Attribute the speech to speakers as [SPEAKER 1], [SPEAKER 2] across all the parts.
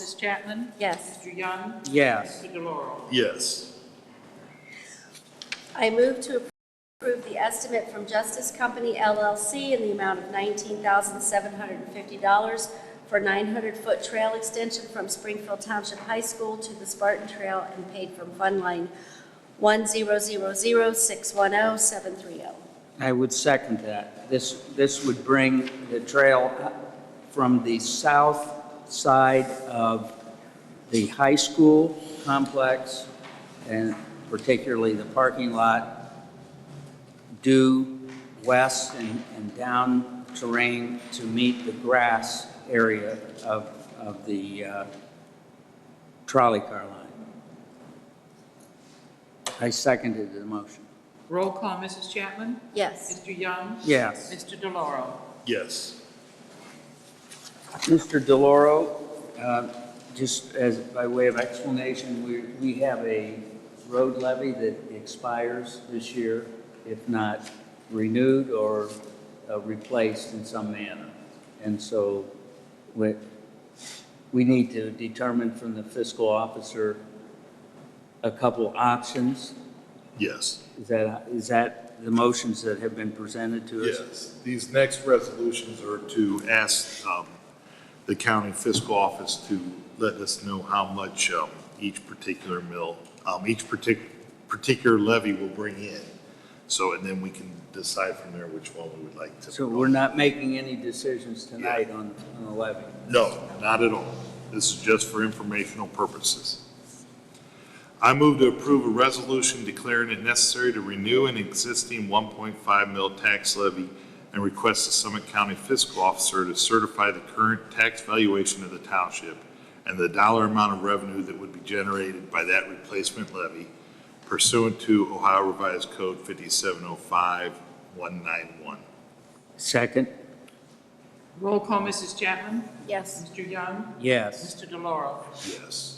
[SPEAKER 1] Mrs. Chapman?
[SPEAKER 2] Yes.
[SPEAKER 1] Mr. Young?
[SPEAKER 3] Yes.
[SPEAKER 1] Mr. DeLauro?
[SPEAKER 4] Yes.
[SPEAKER 2] I move to approve the estimate from Justice Company LLC in the amount of $19,750 for 900-foot trail extension from Springfield Township High School to the Spartan Trail and paid from Fund Line 1000610730.
[SPEAKER 3] I would second that. This, this would bring the trail from the south side of the high school complex and particularly the parking lot due west and, and down terrain to meet the grass area of, of the uh, trolley car line. I seconded the motion.
[SPEAKER 1] Roll call, Mrs. Chapman?
[SPEAKER 2] Yes.
[SPEAKER 1] Mr. Young?
[SPEAKER 3] Yes.
[SPEAKER 1] Mr. DeLauro?
[SPEAKER 4] Yes.
[SPEAKER 3] Mr. DeLauro, uh, just as, by way of explanation, we, we have a road levy that expires this year, if not renewed or uh, replaced in some manner. And so we, we need to determine from the fiscal officer a couple options.
[SPEAKER 4] Yes.
[SPEAKER 3] Is that, is that the motions that have been presented to us?
[SPEAKER 4] Yes. These next resolutions are to ask um, the county fiscal office to let us know how much um, each particular mill, um, each partic- particular levy will bring in. So, and then we can decide from there which one we would like to.
[SPEAKER 3] So we're not making any decisions tonight on, on the levy?
[SPEAKER 4] No, not at all. This is just for informational purposes. I move to approve a resolution declaring it necessary to renew an existing 1.5 mil tax levy and request the Summit County Fiscal Officer to certify the current tax valuation of the township and the dollar amount of revenue that would be generated by that replacement levy pursuant to Ohio Revised Code 5705191.
[SPEAKER 3] Second?
[SPEAKER 1] Roll call, Mrs. Chapman?
[SPEAKER 2] Yes.
[SPEAKER 1] Mr. Young?
[SPEAKER 3] Yes.
[SPEAKER 1] Mr. DeLauro?
[SPEAKER 4] Yes.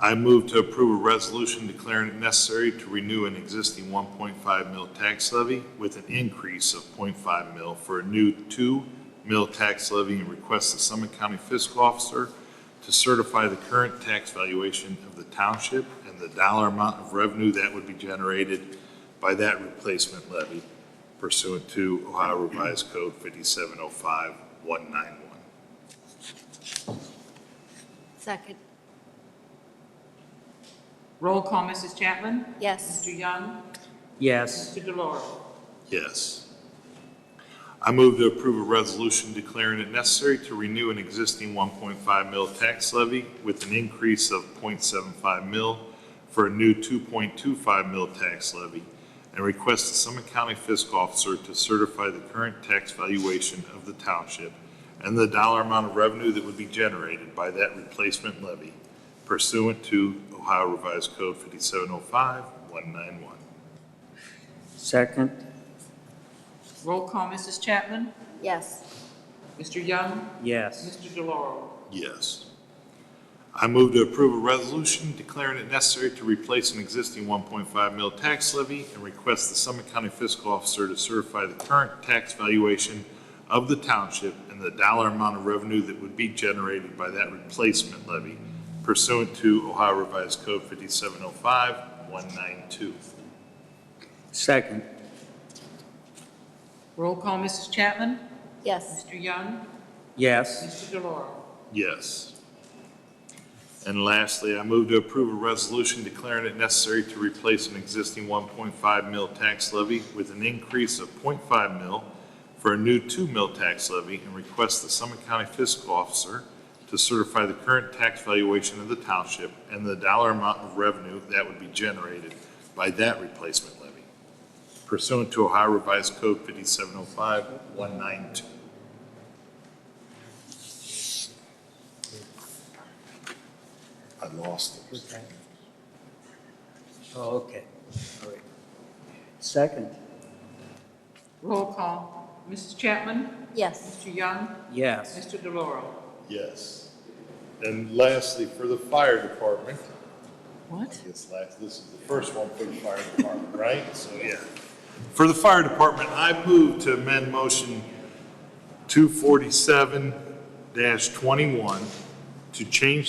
[SPEAKER 4] I move to approve a resolution declaring it necessary to renew an existing 1.5 mil tax levy with an increase of 0.5 mil for a new 2 mil tax levy and request the Summit County Fiscal Officer to certify the current tax valuation of the township and the dollar amount of revenue that would be generated by that replacement levy pursuant to Ohio Revised Code 5705191.
[SPEAKER 2] Second.
[SPEAKER 1] Roll call, Mrs. Chapman?
[SPEAKER 2] Yes.
[SPEAKER 1] Mr. Young?
[SPEAKER 3] Yes.
[SPEAKER 1] Mr. DeLauro?
[SPEAKER 4] Yes. I move to approve a resolution declaring it necessary to renew an existing 1.5 mil tax levy with an increase of 0.75 mil for a new 2.25 mil tax levy and request the Summit County Fiscal Officer to certify the current tax valuation of the township and the dollar amount of revenue that would be generated by that replacement levy pursuant to Ohio Revised Code 5705191.
[SPEAKER 3] Second?
[SPEAKER 1] Roll call, Mrs. Chapman?
[SPEAKER 2] Yes.
[SPEAKER 1] Mr. Young?
[SPEAKER 3] Yes.
[SPEAKER 1] Mr. DeLauro?
[SPEAKER 4] Yes. I move to approve a resolution declaring it necessary to replace an existing 1.5 mil tax levy and request the Summit County Fiscal Officer to certify the current tax valuation of the township and the dollar amount of revenue that would be generated by that replacement levy pursuant to Ohio Revised Code 5705192.
[SPEAKER 3] Second?
[SPEAKER 1] Roll call, Mrs. Chapman?
[SPEAKER 2] Yes.
[SPEAKER 1] Mr. Young?
[SPEAKER 3] Yes.
[SPEAKER 1] Mr. DeLauro?
[SPEAKER 4] Yes. And lastly, I move to approve a resolution declaring it necessary to replace an existing 1.5 mil tax levy with an increase of 0.5 mil for a new 2 mil tax levy and request the Summit County Fiscal Officer to certify the current tax valuation of the township and the dollar amount of revenue that would be generated by that replacement levy pursuant to Ohio Revised Code 5705192. I lost it.
[SPEAKER 3] Oh, okay. All right. Second?
[SPEAKER 1] Roll call, Mrs. Chapman?
[SPEAKER 2] Yes.
[SPEAKER 1] Mr. Young?
[SPEAKER 3] Yes.
[SPEAKER 1] Mr. DeLauro?
[SPEAKER 4] Yes. And lastly, for the fire department,
[SPEAKER 1] What?
[SPEAKER 4] Yes, last, this is the first one for the fire department, right? So, yeah. For the fire department, I move to amend motion two forty-seven twenty-one to change